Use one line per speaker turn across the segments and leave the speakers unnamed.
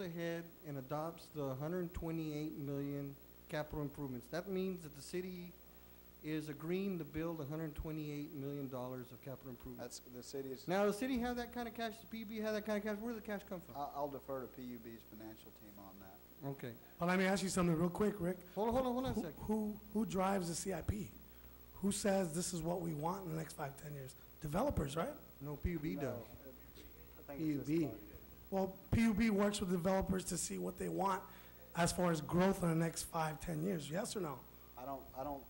ahead and adopts the hundred and twenty-eight million capital improvements. That means that the city is agreeing to build hundred and twenty-eight million dollars of capital improvements.
That's, the city's,
Now, the city have that kind of cash, the PB have that kind of cash, where does the cash come
I-
from?
I'll defer to PUB's financial team on that.
Okay,
Well, let me ask you something real quick, Rick.
hold on, hold on, hold on a
Who-
second.
Who, who drives the CIP? Who says this is what we want in the next five, ten years? Developers, right?
No, PUB
No,
does.
it- I think it's just,
PUB.
like-
Well, PUB works with developers to see what they want as far as growth in the next five, ten years, yes or no?
I don't, I don't,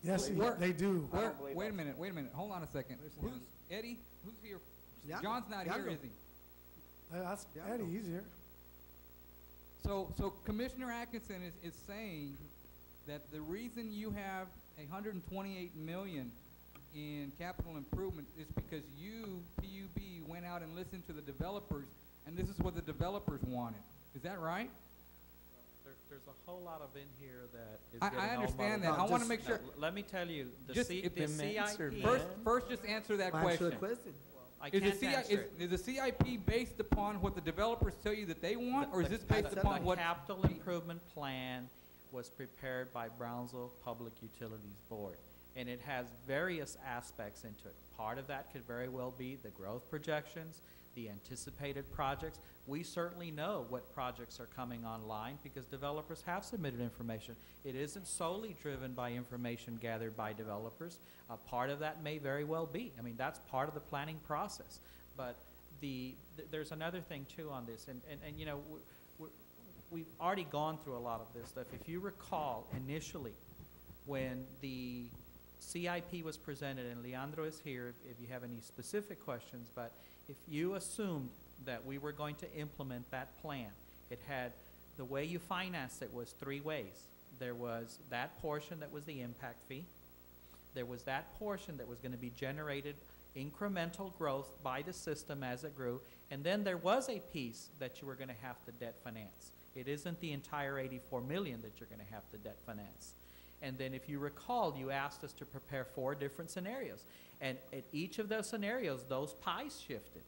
Yes,
They
y-
work.
they do.
I don't
Where-
believe
wait a
that's-
minute, wait a minute, hold on a second. Who's, Eddie, who's here?
Yeah,
John's not here,
Yago.
is he?
Uh, That's,
Yeah, I
Eddie,
know.
he's here.
So, so Commissioner Atkinson is, is saying that the reason you have a hundred and twenty-eight million in capital improvement is because you, PUB, went out and listened to the developers, and this is what the developers wanted. Is that right?
There, there's a whole lot of in here that is
I- I
getting all muddled
understand that.
up.
I wanna make
No,
sure-
l- Let me tell you, the
Just
C,
if
the
the
answer,
CIP.
First, first just answer that
Answer
question.
the question.
I
Is the
can't
CI,
answer
is,
it.
is the CIP based upon what the developers tell you that they want, or is
The-
this based
the-
upon what?
The capital improvement plan was prepared by Brownsville Public Utilities Board, and it has various aspects into it. Part of that could very well be the growth projections, the anticipated projects. We certainly know what projects are coming online because developers have submitted information. It isn't solely driven by information gathered by developers. A part of that may very well be. I mean, that's part of the planning process. But the, th- there's another thing too on this, and, and, and you know, w- w- we've already gone through a lot of this stuff. If you recall, initially, when the CIP was presented, and Leandro is here if- if you have any specific questions, but if you assumed that we were going to implement that plan, it had, the way you financed it was three ways. There was that portion that was the impact fee, there was that portion that was going to be generated incremental growth by the system as it grew, and then there was a piece that you were going to have to debt finance. It isn't the entire 84 million that you're going to have to debt finance. And then if you recall, you asked us to prepare four different scenarios. And at each of those scenarios, those pies shifted.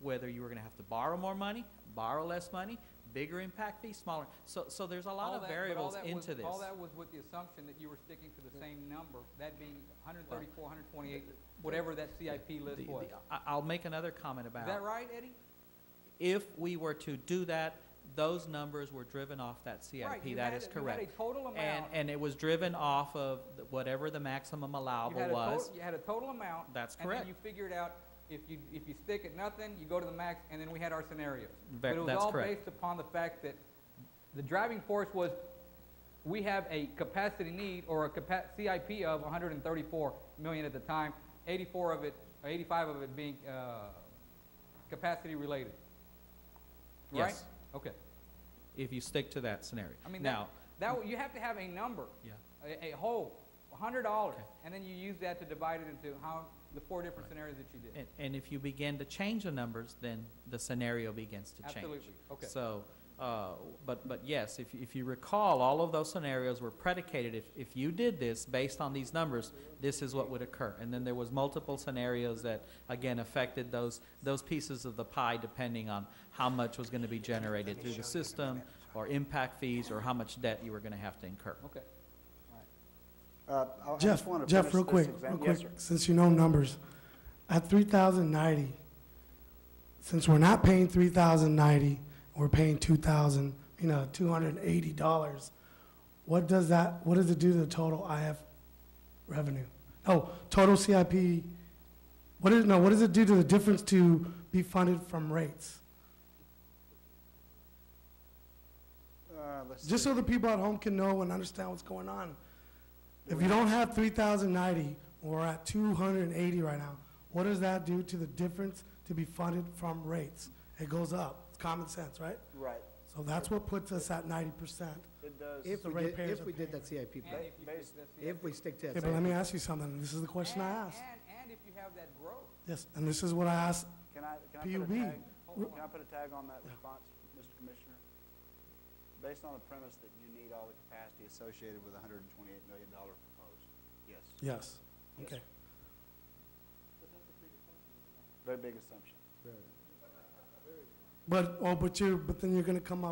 Whether you were going to have to borrow more money, borrow less money, bigger impact fee, smaller. So, so there's a lot
All
of
that- but all
variables
that was-
into this.
All that was with the assumption that you were sticking to the same number, that being 134, 128, whatever that CIP
The-
list
the-
was. Is
I- I'll make another comment about.
that right, Eddie?
if we were to do that, those numbers were driven off that
Right,
CIP,
you
that
had
is
a- you had a
correct.
total
And,
amount-
and it was driven off of th- whatever the maximum
you
allowable
had a tot-
was.
You had a total amount.
That's
And
correct.
then you figured out if you, if you stick at nothing, you go to the max, and then we had our scenarios.
Ve-
But it was
that's
all
correct.
based upon the fact that the driving force was, we have a capacity need or a capa- CIP of 134 million at the time, 84 of it, or 85 of it being uh, capacity related. Right?
Yes.
Okay.
If you stick to that scenario.
I mean, that,
Now,
that, w- you have to have a number,
yeah,
a, a whole, hundred dollars,
Okay.
and then you use that to divide it into how, the four different scenarios that you did.
and, and if you begin to change the numbers, then the scenario begins to change.
Absolutely, okay.
So, uh, but, but yes, if, if you recall, all of those scenarios were predicated, if, if you did this based on these numbers, this is what would occur. And then there was multiple scenarios that, again, affected those, those pieces of the pie depending on how much was gonna be generated through the system, or impact fees, or how much debt you were gonna have to incur.
Okay.
uh, I- I just
Jeff,
want to finish
Jeff, real
this
quick,
exam-
real
yes,
quick,
sir.
since you know numbers, at three thousand ninety, since we're not paying three thousand ninety, we're paying two thousand, you know, two hundred and eighty dollars, what does that, what does it do to the total IF revenue? Oh, total CIP, what is, no, what does it do to the difference to be funded from rates?
Uh, let's
Just
see.
so the people at home can know and understand what's going on. If you don't have three thousand ninety, we're at two hundred and eighty right now, what does that do to the difference to be funded from rates? It goes up, it's common sense, right?
Right,
So that's what puts us at ninety percent.
it does.
If
the
we did,
ratepayers
if
are
we did
paying.
that CIP
And
plan,
if you
ba-
fix that
if we
CIP.
stick to
Okay,
that
but let me
CIP,
ask you something, this is the question I
And-
asked,
And, and if you have that growth,
yes, and this is what I asked,
Can I, can I put a
PUB.
tag?
Hold
Can I put a tag on that
Yeah.
response, Mr. Commissioner? Based on the premise that you need all the capacity associated with a hundred and twenty-eight million dollar proposed, yes,
yes, okay.
very big assumption.
But, oh, but you're, but then you're gonna come up.